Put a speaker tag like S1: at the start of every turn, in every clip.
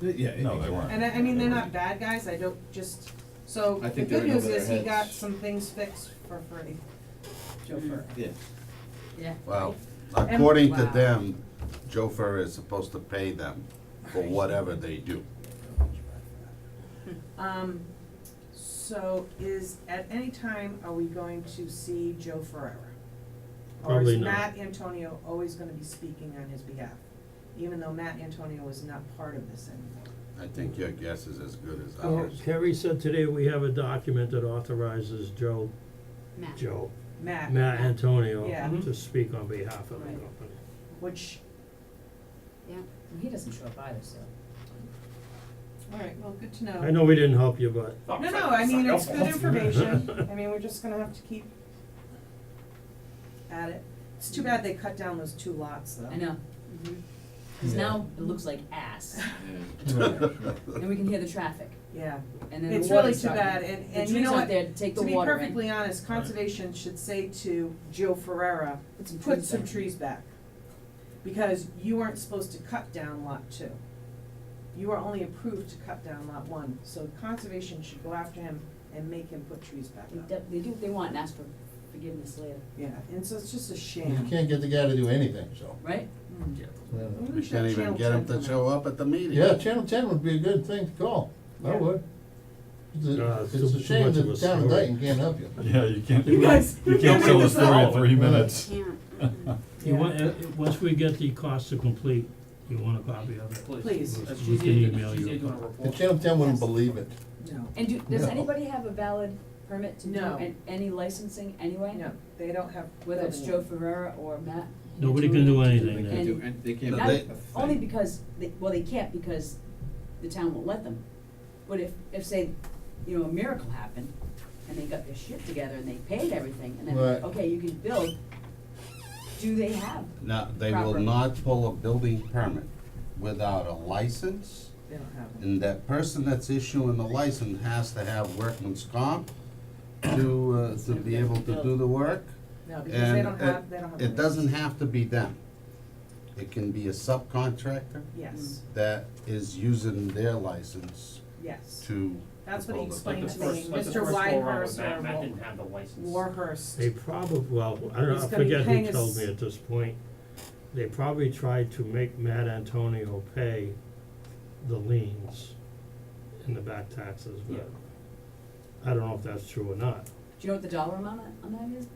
S1: Th- Yeah.
S2: No, they
S1: exactly.
S2: weren't.
S3: And I, I mean, they're not bad guys, I don't, just, so,
S1: I
S3: the
S1: think they're
S3: good
S1: in
S3: news
S1: over
S3: is
S1: their
S3: he got
S1: heads.
S3: some things fixed for free. Chauffeur.
S1: Yeah,
S4: Yeah.
S5: Well,
S3: And-
S5: according to
S4: Wow.
S5: them, Joe Ferrer is supposed to pay them for whatever they do.
S3: Um, so is, at any time, are we going to see Joe Ferrera? Or is
S6: Probably not.
S3: Matt Antonio always gonna be speaking on his behalf, even though Matt Antonio is not part of this anymore?
S5: I think your guess is as good as
S6: Well,
S5: ours.
S6: Kerry said today we have a document that authorizes Joe,
S4: Matt.
S6: Joe,
S3: Matt.
S6: Matt Antonio
S3: Yeah. Mm-hmm.
S6: to speak on behalf of the company.
S4: Right.
S3: Which,
S4: Yeah, and he doesn't show up either, so.
S3: alright, well, good to know.
S6: I know we didn't help you, but
S3: No, no, I mean, it's good information, I mean, we're just gonna have to keep at it. It's too bad they cut down those two lots, though.
S4: I know.
S3: Mm-hmm.
S4: Cause now it looks like ass, and we can hear the traffic,
S3: Yeah,
S4: and then the
S3: it's
S4: water
S3: really too bad, and, and you know what?
S4: The trees out there to take the
S3: To be
S4: water in.
S3: perfectly honest, conservation should say to Joe Ferrera,
S4: Put some
S3: put
S4: trees
S3: some
S4: back."
S3: trees back. Because you weren't supposed to cut down lot two. You were only approved to cut down lot one, so conservation should go after him and make him put trees back
S4: They
S3: up.
S4: de- They do what they want and ask for forgiveness later,
S3: Yeah, and so it's just a shame.
S7: You can't get the guy to do anything, so.
S4: right?
S3: Mm.
S7: yeah.
S3: Maybe we
S5: We
S3: should
S5: can't even
S3: channel
S5: get him to
S3: temperament.
S5: show up at the meeting.
S7: Yeah, Channel Ten would be a good thing to call, I
S3: Yeah.
S7: would. It's
S6: Uh,
S7: a,
S6: it's
S7: it's
S6: too-
S7: a
S6: too
S7: shame
S6: much of
S7: that
S6: a
S7: town of
S6: story.
S7: Dayton can't help you.
S2: Yeah, you can't,
S3: You guys-
S2: you can't tell a
S3: this
S2: story in
S3: out.
S2: three minutes.
S6: you
S3: Yeah.
S6: want, uh, once we get the cost to complete, you want a copy of it?
S3: Please.
S6: We-
S1: If
S6: We
S1: she's
S6: can
S1: here- if
S6: email
S1: she's
S6: you.
S1: here
S6: a
S1: doing a
S6: copy.
S7: The
S1: report.
S7: Channel Ten wouldn't believe it.
S3: No,
S4: And do, does
S7: No.
S4: anybody have a valid permit to do
S3: No.
S4: an- any licensing anyway?
S3: no, they don't have.
S4: Whether it's Joe
S3: building
S4: Ferrera or Matt?
S6: Nobody can
S4: Antonio.
S6: do anything
S1: They
S6: there.
S4: And-
S1: do, and they can't.
S5: No,
S1: do
S5: they-
S1: a thing.
S4: Only because, they, well, they can't because the town won't let them. But if, if say, you know, a miracle happened and they got their shit together and they paid everything and then,
S7: Right.
S4: okay, you can build, do they have?
S5: No, they will
S4: Proper.
S5: not pull a building permit without a license,
S3: it. They don't have one.
S5: and that person that's issuing the license has to have workman's comp to, uh, to be able to do the work.
S3: No, because they
S5: And
S3: don't have, they don't have.
S5: it, it
S3: buildings.
S5: doesn't have to be them. It can be a subcontractor
S3: Yes,
S5: that is using their license
S3: yes.
S5: to.
S3: That's what he
S5: Like the
S1: Like the
S3: explained to me,
S1: first, like the
S3: Mr.
S1: first go around with
S3: Whitehurst
S1: Matt,
S3: or
S1: Matt didn't
S3: Wa-
S1: have the license.
S3: Warhurst.
S6: They probably, well, I don't know,
S3: It's
S6: I
S3: gonna be
S6: forget
S3: paying
S6: who
S3: us-
S6: told me at this point, they probably tried to make Matt Antonio pay the liens and the back taxes, but I don't know if that's true or not,
S4: Do you know what the dollar amount on- on that is?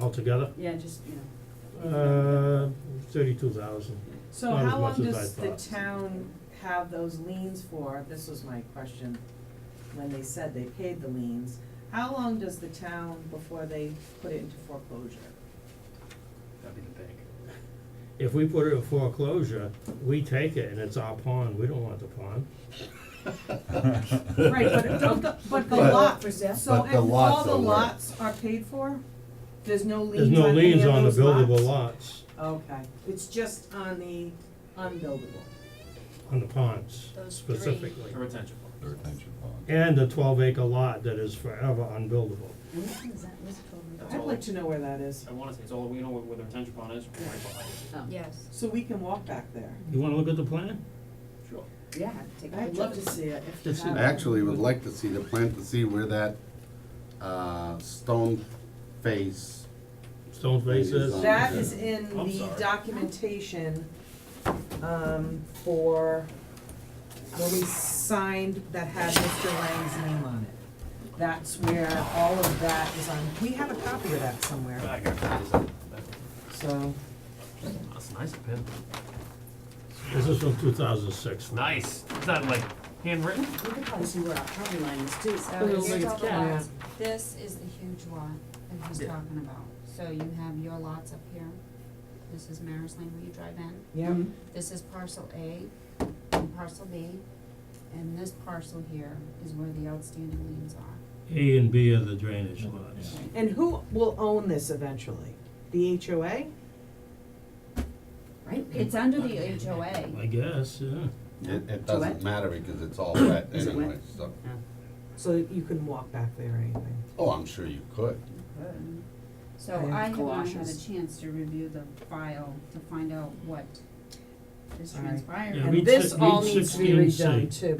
S6: altogether,
S4: Yeah, just, you know,
S6: uh, thirty-two thousand.
S3: So
S6: Not as
S3: how long
S6: much as
S3: does
S6: I
S3: the
S6: thought.
S3: town have those liens for? This was my question when they said they paid the liens. How long does the town before they put it into foreclosure?
S1: That'd be the bank.
S6: If we put it in foreclosure, we take it and it's our pond, we don't want the pond.
S3: Right, but don't the, but the
S5: But-
S3: lot,
S4: For sale?
S3: so
S5: But the
S3: if all
S5: lots
S3: the
S5: are worth-
S3: lots are paid for, there's no
S6: There's
S3: liens
S6: no
S3: on any of
S6: liens on the
S3: those
S6: buildable
S3: lots?
S6: lots,
S3: Okay, it's just on the unbuildable.
S6: on the ponds
S4: Those three.
S6: specifically.
S1: A retention
S2: Or
S1: pond.
S2: attention pond.
S6: And the twelve acre lot that is forever unbuildable.
S4: and which one is that, what's it
S1: That's
S3: I'd
S1: all.
S3: like to know where that is,
S1: I wanna say, it's all, we know where the retention pond is, right behind it.
S4: called? Yeah.
S3: so we can walk back there.
S6: You wanna look at the plan?
S1: Sure.
S4: Yeah, take a
S3: I'd
S4: picture
S3: love
S4: of
S3: to
S4: it.
S3: see it if you
S4: This is
S3: have it.
S5: I actually would like to see the plan to see where that, uh, stone face,
S6: Stone faces.
S5: Liaison.
S3: That is in
S6: I'm
S3: the
S6: sorry.
S3: documentation, um, for, where we signed that had Mr. Lang's name on it. That's where all of that is on, we have a copy of that somewhere,
S1: I got it.
S3: so,
S1: That's nice, pen.
S6: This is from two thousand six.
S1: Nice. Is that like handwritten?
S4: We could probably see where our property line is too.
S8: So
S1: But it'll
S8: here's
S1: make
S8: all
S1: it
S8: the
S1: cat.
S8: lots. This is the huge lot that he's
S1: Yeah.
S8: talking about. So you have your lots up here. This is Maris Lane where you drive in.
S3: yeah.
S4: Mm-hmm.
S8: This is parcel A and parcel B. And this parcel here is where the outstanding liens are.
S6: A and B are the drainage lots.
S3: And who will own this eventually? The HOA?
S4: Right?
S8: It's under the HOA.
S6: I guess, yeah.
S5: it, it
S4: Duet?
S5: doesn't matter because it's all wet
S4: Is it wet?
S5: anyway, so.
S3: So you couldn't walk back there or anything.
S5: Oh, I'm sure you could.
S8: So
S3: I have
S8: I have not had a
S4: Colossians.
S8: chance to review the file to find out what
S9: is
S6: All right.
S9: transpiring.
S3: Yeah,
S6: And
S3: read
S6: this
S3: si-
S6: all
S3: read
S6: needs to be
S3: 16C.
S6: redone too,